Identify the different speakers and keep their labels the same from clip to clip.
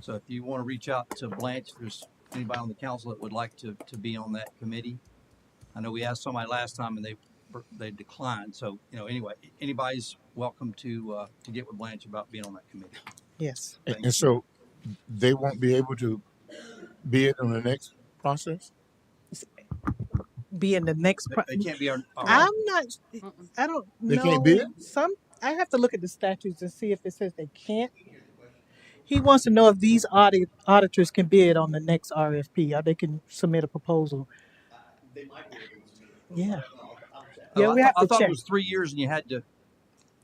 Speaker 1: So if you want to reach out to Blanche, if there's anybody on the council that would like to, to be on that committee. I know we asked somebody last time and they, they declined. So, you know, anyway, anybody's welcome to, uh, to get with Blanche about being on that committee.
Speaker 2: Yes.
Speaker 1: Thank
Speaker 3: And so they won't be able to be it on the next process?
Speaker 2: Be in the next. Pro-
Speaker 1: They- They can't be on. our-
Speaker 2: I'm not.
Speaker 4: Mm-mm.
Speaker 2: I don't
Speaker 3: They
Speaker 2: know.
Speaker 3: can't bid?
Speaker 2: Some. I have to look at the statutes and see if it says they can't. He wants to know if these audit auditors can bid on the next RFP or they can submit a proposal. Yeah.
Speaker 1: Oh,
Speaker 2: Yeah,
Speaker 1: I
Speaker 2: we
Speaker 1: thought-
Speaker 2: have
Speaker 1: I
Speaker 2: to
Speaker 1: thought
Speaker 2: check.
Speaker 1: it was three years and you had to,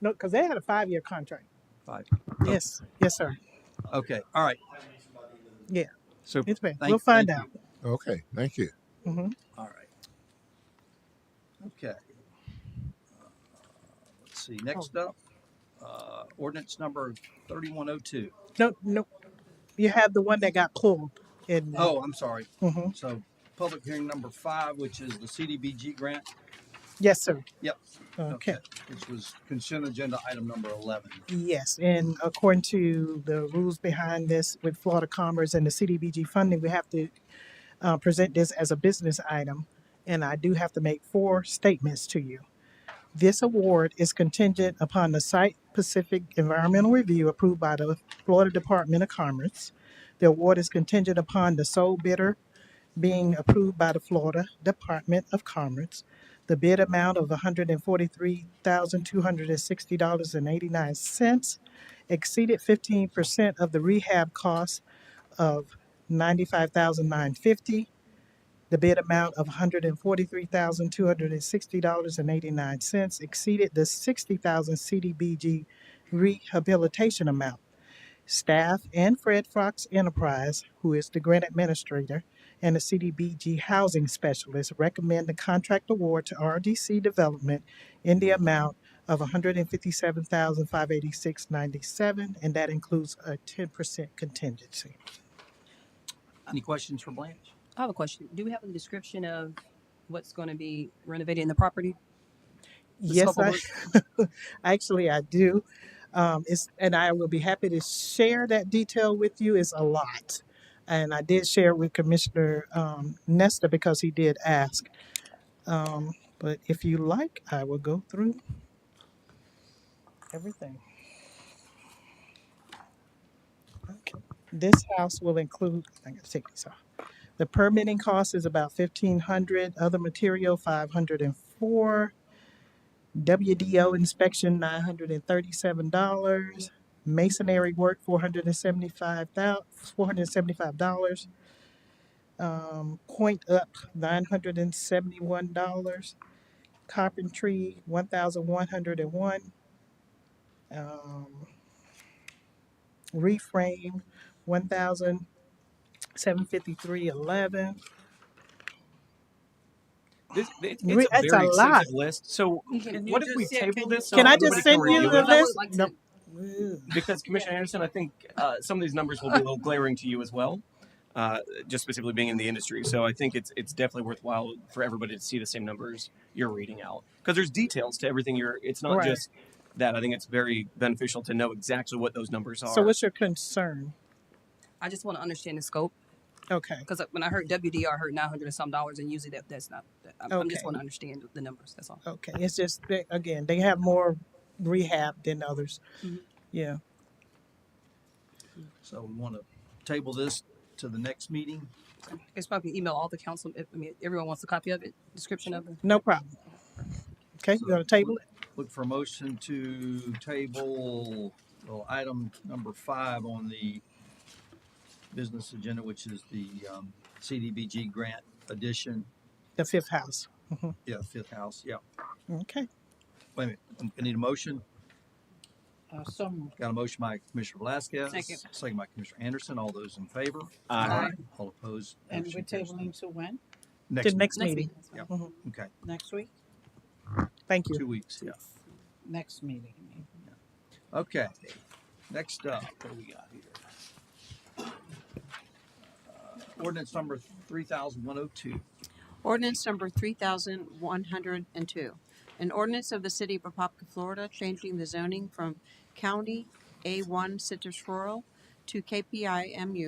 Speaker 2: No, because they had a five-year contract.
Speaker 1: Five.
Speaker 2: Yes. Yes, sir.
Speaker 1: okay, all right.
Speaker 2: Yeah.
Speaker 1: Super.
Speaker 2: It's been.
Speaker 1: Thank-
Speaker 2: we'll find
Speaker 1: thank
Speaker 2: out.
Speaker 3: Okay, thank you.
Speaker 2: hmm
Speaker 1: All right. Okay. Uh, Let's see, next
Speaker 2: Oh.
Speaker 1: up, uh, ordinance number thirty-one oh two.
Speaker 2: No, no. You have the one that got pulled. And,
Speaker 1: Oh, I'm sorry.
Speaker 2: mhm.
Speaker 1: So public hearing number five, which is the CDBG grant,
Speaker 2: Yes, sir.
Speaker 1: Yep.
Speaker 2: Okay.
Speaker 1: which was consent agenda item number eleven.
Speaker 2: Yes, and according to the rules behind this with Florida Commerce and the CDBG funding, we have to uh, present this as a business item. And I do have to make four statements to you. This award is contingent upon the site-specific environmental review approved by the Florida Department of Commerce. The award is contingent upon the sole bidder being approved by the Florida Department of Commerce. The bid amount of hundred and forty-three thousand, two hundred and sixty dollars and eighty-nine cents exceeded fifteen percent of the rehab cost of ninety-five thousand, nine fifty. The bid amount of hundred and forty-three thousand, two hundred and sixty dollars and eighty-nine cents exceeded the sixty thousand CDBG rehabilitation amount. Staff and Fred Fox Enterprise, who is the grant administrator, and the CDBG housing specialist recommend the contract award to RDC Development in the amount of one hundred and fifty-seven thousand five eighty-six ninety-seven, and that includes a ten percent contingency.
Speaker 1: Any questions for Blanche?
Speaker 4: I have a question. Do we have a description of what's going to be renovated in the property? The
Speaker 2: Yes,
Speaker 4: scope
Speaker 2: I,
Speaker 4: of
Speaker 2: actually I do. Um, it's, and I will be happy to share that detail with you. It's a lot. And I did share with Commissioner, um, Nesta because he did ask. Um, but if you like, I will go through everything. Okay. This house will include, I gotta take these off. The permitting cost is about fifteen hundred, other material five hundred and four. WDO inspection, nine hundred and thirty-seven dollars. Masonry work, four hundred and seventy-five four hundred and seventy-five dollars. Um, point up, nine hundred and seventy-one dollars. Carpentry, one thousand one hundred and one. Um, reframe, one thousand seven fifty-three eleven.
Speaker 5: This, it,
Speaker 2: Re-
Speaker 5: it's a
Speaker 2: that's a lot.
Speaker 5: very extensive list. So
Speaker 4: You can-
Speaker 5: what
Speaker 4: you
Speaker 5: if we
Speaker 4: just said,
Speaker 5: table
Speaker 4: can
Speaker 5: this?
Speaker 4: you-
Speaker 5: So
Speaker 2: Can I
Speaker 5: everybody
Speaker 2: just
Speaker 5: can
Speaker 2: send you
Speaker 5: review
Speaker 2: the
Speaker 5: it?
Speaker 4: I would
Speaker 2: list?
Speaker 4: like to-
Speaker 2: No.
Speaker 5: Because Commissioner Anderson, I think uh, some of these numbers will be a little glaring to you as well, uh, just specifically being in the industry. So I think it's it's definitely worthwhile for everybody to see the same numbers you're reading out because there's details to everything you're. It's not
Speaker 2: Right.
Speaker 5: just that. I think it's very beneficial to know exactly what those numbers are.
Speaker 2: So what's your concern?
Speaker 4: I just want to understand the scope
Speaker 2: Okay.
Speaker 4: because when I heard WDR, I heard nine hundred and some dollars, and usually that that's not. that- I'm, I'm just
Speaker 2: Okay.
Speaker 4: want to understand the numbers. That's all.
Speaker 2: Okay, it's just they, again they have more rehab than others.
Speaker 4: Mhm.
Speaker 2: Yeah,
Speaker 1: So we want to table this to the next meeting.
Speaker 4: It's probably email all the council. if- I mean, everyone wants a copy of it, description of it.
Speaker 2: no problem. Okay, you gonna table it?
Speaker 1: Look for a motion to table, well, item number five on the business agenda, which is the, um, CDBG grant addition.
Speaker 2: The fifth house.
Speaker 1: Yeah, fifth house, yeah.
Speaker 2: Okay,
Speaker 1: Wait a minute, I need a motion.
Speaker 4: Uh, some.
Speaker 1: Got a motion by Commissioner Velasquez.
Speaker 4: Second.
Speaker 1: by Commissioner Anderson. All those in favor?
Speaker 5: uh,
Speaker 4: Aye.
Speaker 1: All opposed?
Speaker 6: And
Speaker 1: Motion
Speaker 6: we're
Speaker 1: carries.
Speaker 6: tabling to when?
Speaker 2: the
Speaker 1: Next,
Speaker 2: next
Speaker 4: Next
Speaker 2: meeting.
Speaker 4: meeting.
Speaker 1: Yeah.
Speaker 2: Mhm.
Speaker 1: okay,
Speaker 6: Next week?
Speaker 2: Thank you.
Speaker 1: two weeks, yeah.
Speaker 6: Next meeting.
Speaker 1: Okay, next up, what do we got here? Uh, Ordinance number three thousand one oh two.
Speaker 6: Ordinance number three thousand one hundred and two. An ordinance of the city of Apopka, Florida, changing the zoning from county A one citrus rural to KPIMU